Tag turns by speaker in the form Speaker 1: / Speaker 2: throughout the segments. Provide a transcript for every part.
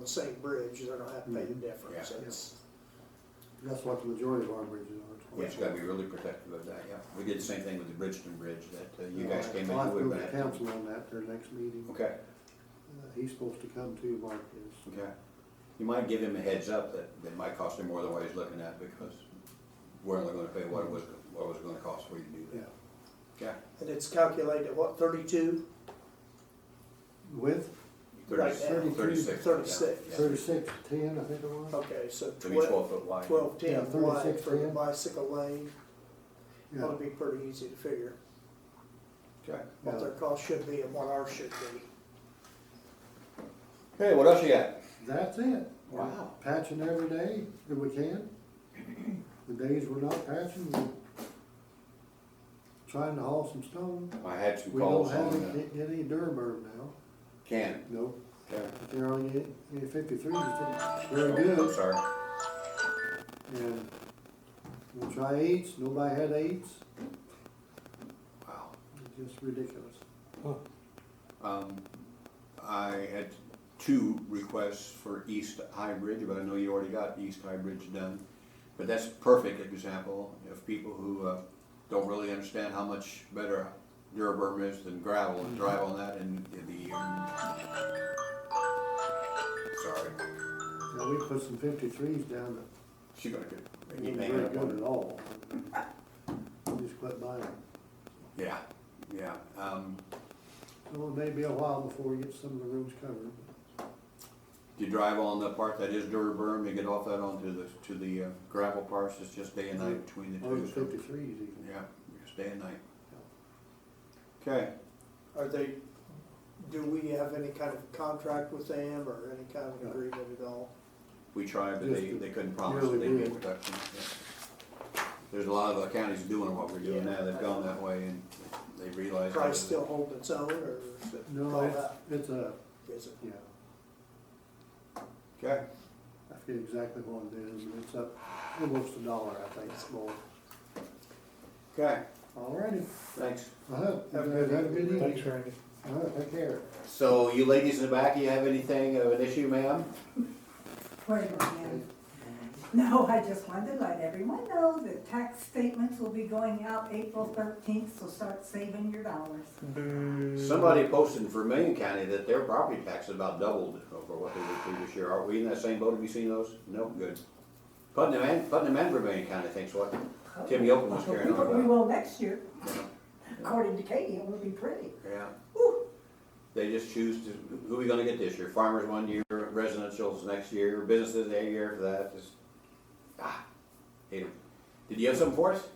Speaker 1: the same bridge, they're gonna have to pay the difference.
Speaker 2: Yeah.
Speaker 1: It's,
Speaker 3: That's what the majority of our bridges are.
Speaker 2: Which gotta be really protective of that, yeah. We did the same thing with the Bridgeton Bridge that uh, you guys came
Speaker 3: I'll
Speaker 2: in
Speaker 3: have to go
Speaker 2: with
Speaker 3: to
Speaker 2: that.
Speaker 3: council on that, their next meeting.
Speaker 2: Okay,
Speaker 3: Uh, He's supposed to come too, Mark is.
Speaker 2: okay. You might give him a heads up that, that might cost him more than what he's looking at because we're only gonna pay what it was, what it was gonna cost for you to do
Speaker 3: Yeah.
Speaker 2: that. Okay?
Speaker 1: and it's calculated at what, thirty-two?
Speaker 3: With
Speaker 1: Right now.
Speaker 2: Thirty- Thirty-six. yeah,
Speaker 1: 36.
Speaker 2: yeah.
Speaker 3: thirty-six, ten, I think it was.
Speaker 1: Okay, so
Speaker 2: To be twelve
Speaker 1: twelve,
Speaker 2: foot wide.
Speaker 1: twelve
Speaker 3: Yeah,
Speaker 1: ten wide
Speaker 3: 36,
Speaker 1: for the
Speaker 3: yeah.
Speaker 1: bicycle lane,
Speaker 3: Yeah.
Speaker 1: that'll be pretty easy to figure.
Speaker 2: Okay.
Speaker 1: What their cost should be and what ours should be.
Speaker 2: Hey, what else you got?
Speaker 3: That's it.
Speaker 2: Wow.
Speaker 3: Patching every day that we can. The days we're not patching, we're trying to haul some stone.
Speaker 2: I had some
Speaker 3: We don't
Speaker 2: calls
Speaker 3: have
Speaker 2: on uh,
Speaker 3: any,
Speaker 2: the
Speaker 3: can't get any Durberm now,
Speaker 2: can.
Speaker 3: no,
Speaker 2: Okay.
Speaker 3: but they're only getting getting fifty-three,
Speaker 2: Oh,
Speaker 3: they're
Speaker 2: I'm
Speaker 3: good.
Speaker 2: sorry.
Speaker 3: And we'll try eights, nobody had eights,
Speaker 2: Wow.
Speaker 3: it's just ridiculous.
Speaker 2: Um, I had two requests for East High Bridge, but I know you already got East High Bridge done. But that's a perfect example of people who, uh, don't really understand how much better Duraburn is than gravel and drive on that and the, um, sorry,
Speaker 3: Now, we put some fifty-threes down
Speaker 2: she gonna get.
Speaker 3: that ain't very good at all. Just quit buying them.
Speaker 2: Yeah, yeah, um,
Speaker 3: Well, it may be a while before we get some of the rooms covered.
Speaker 2: you drive on the part that is Duraburn, you get off that onto the, to the uh, gravel parts, it's just day and night between the
Speaker 3: Or the
Speaker 2: two. so-
Speaker 3: fifty-threes even.
Speaker 2: Yeah, just day and night. Okay,
Speaker 1: Are they, do we have any kind of contract with them or any kind of agreement at all?
Speaker 2: we tried, but they,
Speaker 3: Just
Speaker 2: they couldn't promise
Speaker 3: really
Speaker 2: that they'd
Speaker 3: good.
Speaker 2: get production. yeah. There's a lot of the counties doing what we're doing now, they've gone that way and they realize.
Speaker 1: Price still holding its own or is it
Speaker 3: No,
Speaker 1: gone
Speaker 3: it's,
Speaker 1: up?
Speaker 3: it's a,
Speaker 1: Is it?
Speaker 3: yeah,
Speaker 2: Okay,
Speaker 3: I forget exactly what it is, but it's up almost a dollar, I think, it's more.
Speaker 2: okay,
Speaker 3: All righty.
Speaker 2: thanks.
Speaker 3: Uh-huh,
Speaker 1: Have a
Speaker 3: you guys
Speaker 1: good
Speaker 3: have a good
Speaker 1: evening.
Speaker 3: evening.
Speaker 4: Thanks, Randy.
Speaker 3: Uh-huh, take care.
Speaker 2: So you ladies in the back, you have anything of an issue, ma'am?
Speaker 5: Wait a minute. No, I just wanted to let everyone know that tax statements will be going out April thirteenth, so start saving your dollars.
Speaker 2: Somebody posted in Vermillion County that their property tax is about doubled over what they were previous year. Are we in that same boat? Have you seen those? No, good. Putnam and, Putnam and Vermillion County thinks what? Tim Yocum was carrying on
Speaker 5: But
Speaker 2: about.
Speaker 5: We will next year,
Speaker 2: Yeah.
Speaker 5: according to Katie, it will be pretty.
Speaker 2: Yeah.
Speaker 5: Whew.
Speaker 2: They just choose to, who are we gonna get this year? Farmers one year, residential's next year, businesses a year for that, just, ah, hate 'em. Did you have something for us?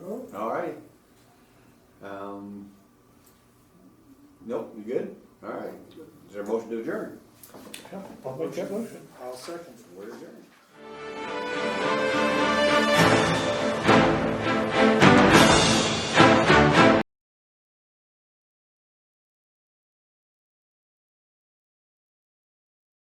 Speaker 1: No.
Speaker 2: All right. Um, nope, you good? All right. Is there a motion to adjourn?
Speaker 4: I'll make that motion.
Speaker 1: I'll second.
Speaker 2: We're adjourned.